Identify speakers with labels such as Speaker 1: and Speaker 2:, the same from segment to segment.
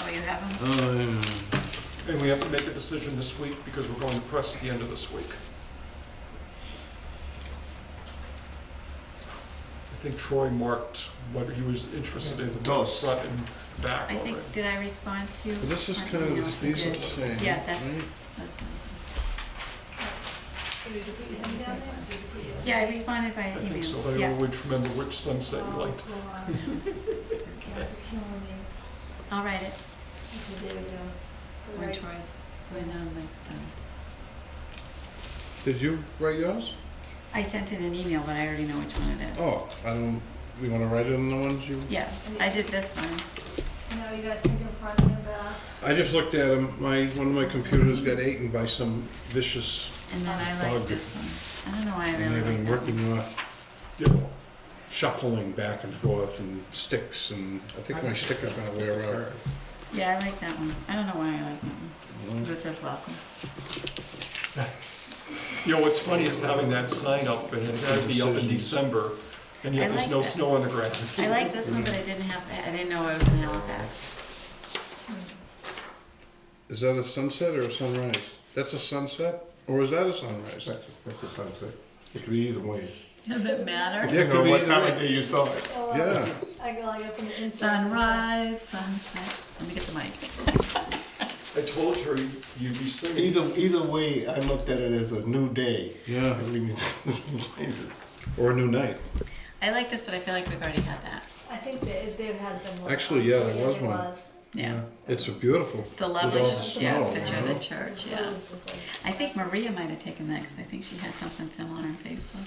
Speaker 1: Oh, you have them?
Speaker 2: Um,
Speaker 3: And we have to make a decision this week because we're going to press at the end of this week. I think Troy marked what he was interested in, the
Speaker 2: Dos.
Speaker 3: front and back
Speaker 1: I
Speaker 3: of
Speaker 1: think,
Speaker 3: it.
Speaker 1: did I respond to you?
Speaker 2: but This is
Speaker 1: I don't
Speaker 2: kind of,
Speaker 1: know
Speaker 2: this-
Speaker 1: if I
Speaker 2: these are the
Speaker 1: did.
Speaker 2: same.
Speaker 1: Yeah, that's-
Speaker 2: right?
Speaker 1: That's not-
Speaker 4: Did you put your hand down there? Did you put your-
Speaker 1: Yeah, I responded by
Speaker 3: I
Speaker 1: email.
Speaker 3: think so, but I
Speaker 1: Yeah,
Speaker 3: always remember which sunset you liked.
Speaker 4: Oh, wow. That's killing me.
Speaker 1: I'll write it
Speaker 4: Okay, there we go.
Speaker 1: when
Speaker 4: Right.
Speaker 1: Troy's, when um, Mike's done.
Speaker 2: Did you write yours?
Speaker 1: I sent it an email, but I already know which one it is.
Speaker 2: Oh, I don't, you wanna write it on the ones you?
Speaker 1: Yeah, I did this one.
Speaker 4: Now you guys think in front and back.
Speaker 2: I just looked at them, my, one of my computers got eaten by some vicious,
Speaker 1: And then I
Speaker 2: Dog.
Speaker 1: like this one. I don't know why I
Speaker 2: Oh, and
Speaker 1: really
Speaker 2: they've been
Speaker 1: like that.
Speaker 2: working off
Speaker 3: Yeah,
Speaker 2: shuffling back and forth and sticks, and I think my sticker's gonna wear out.
Speaker 1: Yeah, I like that one. I don't know why I like that one.
Speaker 2: Mm.
Speaker 1: 'Cause It says welcome.
Speaker 3: You know, what's funny is having that sign up and it had to be up in
Speaker 2: Decision.
Speaker 3: December and
Speaker 1: I
Speaker 3: yet there's
Speaker 1: like
Speaker 3: no
Speaker 1: that.
Speaker 3: snow on the ground.
Speaker 1: I like this one, but I didn't have, I didn't know I was in Halifax.
Speaker 2: Is that a sunset or a sunrise? That's a sunset, or is that a sunrise?
Speaker 5: That's, that's the sunset. It could be either way.
Speaker 1: Does it matter?
Speaker 2: Yeah, it
Speaker 5: You know
Speaker 2: could be
Speaker 5: what
Speaker 2: either
Speaker 5: time
Speaker 2: way.
Speaker 5: of day you saw it.
Speaker 4: Oh, wow.
Speaker 2: Yeah,
Speaker 4: I go like up in the inside.
Speaker 1: Sunrise, sunset. Let me get the mic.
Speaker 3: I told her you'd be singing.
Speaker 5: Either, either way, I looked at it as a new day.
Speaker 2: yeah,
Speaker 5: I mean, Jesus.
Speaker 2: or a new night.
Speaker 1: I like this, but I feel like we've already had that.
Speaker 4: I think there, there has been one.
Speaker 2: Actually, yeah, there
Speaker 4: There
Speaker 2: was one.
Speaker 4: was.
Speaker 1: Yeah.
Speaker 2: It's a beautiful.
Speaker 1: The
Speaker 2: with
Speaker 1: lovely,
Speaker 2: all the
Speaker 1: yeah,
Speaker 2: snow,
Speaker 1: picture of
Speaker 2: you know?
Speaker 1: the church,
Speaker 4: It
Speaker 1: yeah.
Speaker 4: was just like-
Speaker 1: I think Maria might have taken that, because I think she had something similar on Facebook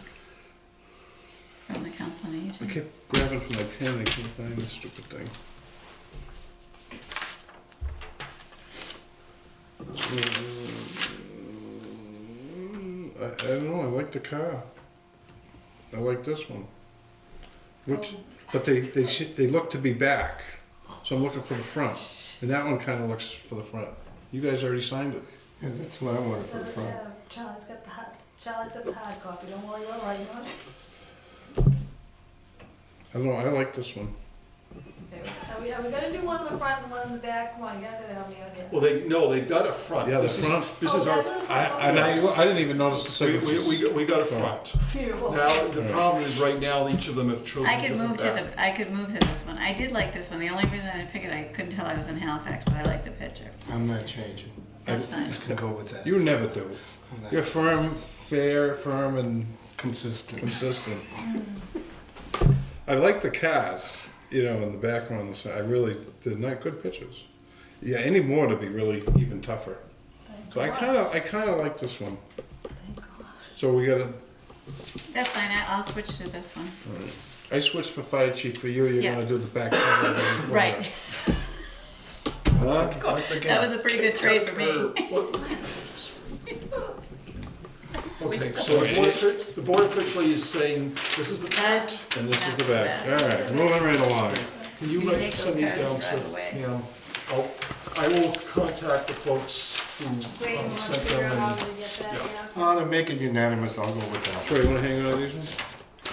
Speaker 1: from the Council on
Speaker 2: I
Speaker 1: Aging.
Speaker 2: kept grabbing for my pen, I can't find this stupid thing. Uh, Mm, I, I don't know, I like the car. I like this one. Which, but they, they, sh- they look to be back, so I'm looking for the front, and that one kinda looks for the front. You guys already signed it.
Speaker 5: Yeah, that's what I wanted for the
Speaker 4: Oh,
Speaker 5: front.
Speaker 4: yeah. Charlie's got the hot, Charlie's got the hard copy, don't worry, we're lighting on it.
Speaker 2: I don't know, I like this one.
Speaker 4: Are we, are we gonna do one in the front and one in the back? Come on, you gotta help me out here.
Speaker 3: Well, they, no, they got a front.
Speaker 2: Yeah, the
Speaker 3: This is-
Speaker 2: front.
Speaker 3: This
Speaker 1: Oh,
Speaker 3: is our,
Speaker 2: I, and I, I didn't even notice the
Speaker 3: we,
Speaker 2: signatures.
Speaker 3: we, we- we got a front.
Speaker 4: Phew.
Speaker 3: Now, the problem is right now, each of them have chosen
Speaker 1: I
Speaker 3: a
Speaker 1: could move
Speaker 3: different
Speaker 1: to
Speaker 3: path.
Speaker 1: the, I could move to this one. I did like this one. The only reason I didn't pick it, I couldn't tell I was in Halifax, but I like the picture.
Speaker 5: I'm not changing.
Speaker 1: That's
Speaker 5: I'm
Speaker 1: fine.
Speaker 5: just gonna go with that.
Speaker 2: You never do.
Speaker 5: I'm not
Speaker 2: You're firm, fair, firm, and
Speaker 5: consistent.
Speaker 2: consistent. I like the cars, you know, in the background. and so- I really, they're not good pictures. Yeah, any more to be really even tougher. So I kind of, I kind of like this one. So we gotta,
Speaker 1: That's fine, I- I'll switch to this one.
Speaker 2: I switched for fire chief for you. You're
Speaker 1: Yeah.
Speaker 2: gonna do the back. cover and the corner.
Speaker 1: Right,
Speaker 5: Huh? Once
Speaker 1: that
Speaker 5: again,
Speaker 1: was a pretty good trade for me.
Speaker 3: Okay, so the board offic- the board officially is saying, this is the front.
Speaker 2: And this is the back. All right, moving right along.
Speaker 3: Can you
Speaker 1: You
Speaker 3: write
Speaker 1: make
Speaker 3: some of
Speaker 1: those
Speaker 3: these down?
Speaker 1: cards
Speaker 3: so-
Speaker 1: right away.
Speaker 3: Yeah, I'll, I will contact the folks who
Speaker 4: Wait,
Speaker 3: um,
Speaker 4: we'll
Speaker 3: sent
Speaker 4: figure
Speaker 3: them
Speaker 4: out how
Speaker 3: and,
Speaker 4: to get that,
Speaker 3: yeah.
Speaker 4: yeah.
Speaker 5: oh, to make it unanimous, I'll go with that.
Speaker 2: Troy, you wanna hang on to these ones?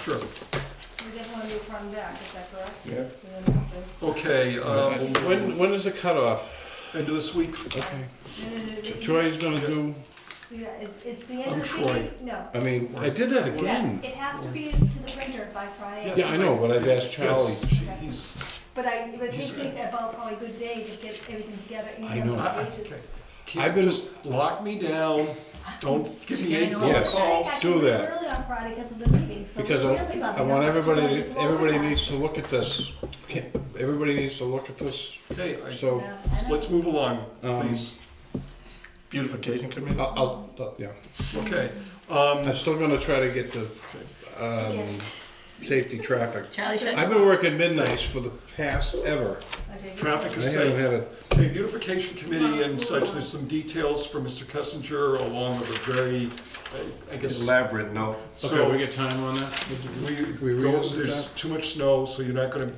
Speaker 3: sure.
Speaker 4: We definitely wanna do front and back, is that correct?
Speaker 2: Yeah.
Speaker 4: We don't have to-
Speaker 3: Okay, um,
Speaker 2: When, when is the cutoff?
Speaker 3: end of this week,
Speaker 2: Okay.
Speaker 4: No, no, no, no,
Speaker 2: Troy's gonna do,
Speaker 4: Yeah, it's, it's the end
Speaker 3: I'm
Speaker 4: of the
Speaker 3: Troy.
Speaker 4: meeting? No.
Speaker 2: I mean, I did that again.
Speaker 4: It has to be to the printer by Friday.
Speaker 3: Yes.
Speaker 2: Yeah, I know, but I've asked Charlie.
Speaker 3: yes, she- he's,
Speaker 4: But I, but you think about probably a good day to get everything together. you
Speaker 2: I know.
Speaker 3: I- I-
Speaker 4: pages.
Speaker 3: okay.
Speaker 2: I've
Speaker 3: Can't
Speaker 2: been-
Speaker 3: just lock me down, don't give me
Speaker 1: She's
Speaker 3: eight
Speaker 1: getting
Speaker 3: phone
Speaker 2: old. Yes.
Speaker 3: calls.
Speaker 4: I think I
Speaker 2: do
Speaker 4: can leave
Speaker 2: that.
Speaker 4: Early on Friday because of the meeting, so.
Speaker 2: Because I,
Speaker 4: we're really bumping
Speaker 2: I
Speaker 4: up
Speaker 2: want
Speaker 4: against
Speaker 2: everybody,
Speaker 4: Friday, so
Speaker 2: everybody
Speaker 4: overtime.
Speaker 2: needs to look at this. Can't- Everybody needs to look at this,
Speaker 3: Okay,
Speaker 2: so
Speaker 3: I-
Speaker 4: Yeah,
Speaker 3: so
Speaker 4: I know.
Speaker 3: let's move along,
Speaker 2: Um,
Speaker 3: please.
Speaker 5: Beautification committee?
Speaker 2: I'll, I'll- I'll, yeah.
Speaker 3: Okay, um,
Speaker 2: I'm still gonna try to get the, um, safety traffic.
Speaker 1: Charlie, should
Speaker 2: I've been working midnights for the past ever.
Speaker 4: Okay,
Speaker 3: traffic
Speaker 2: I
Speaker 3: is
Speaker 2: haven't
Speaker 3: safe.
Speaker 2: had a,
Speaker 3: Okay, beautification committee and such, there's some details from Mr. Kessinger along with a very, I- I guess,
Speaker 5: Elaborate, no.
Speaker 2: okay, we
Speaker 3: so
Speaker 2: get time on that?
Speaker 3: we
Speaker 2: we
Speaker 3: go,
Speaker 2: revisit
Speaker 3: there's too much snow, so you're not gonna,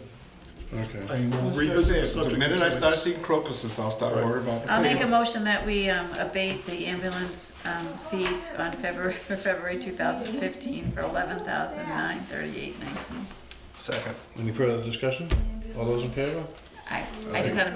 Speaker 2: Okay.
Speaker 3: I mean, we'll revisit the subject.
Speaker 5: The
Speaker 3: in
Speaker 5: minute
Speaker 3: two
Speaker 5: I start
Speaker 3: weeks.
Speaker 5: seeing crocuses, I'll start
Speaker 3: Right.
Speaker 5: worrying about the
Speaker 1: I'll make a
Speaker 5: payroll.
Speaker 1: motion that we um, abate the ambulance um, fees on February, for February 2015 for 11938 19
Speaker 5: Second.
Speaker 2: Any further discussion? All those in favor?
Speaker 1: I, I just had to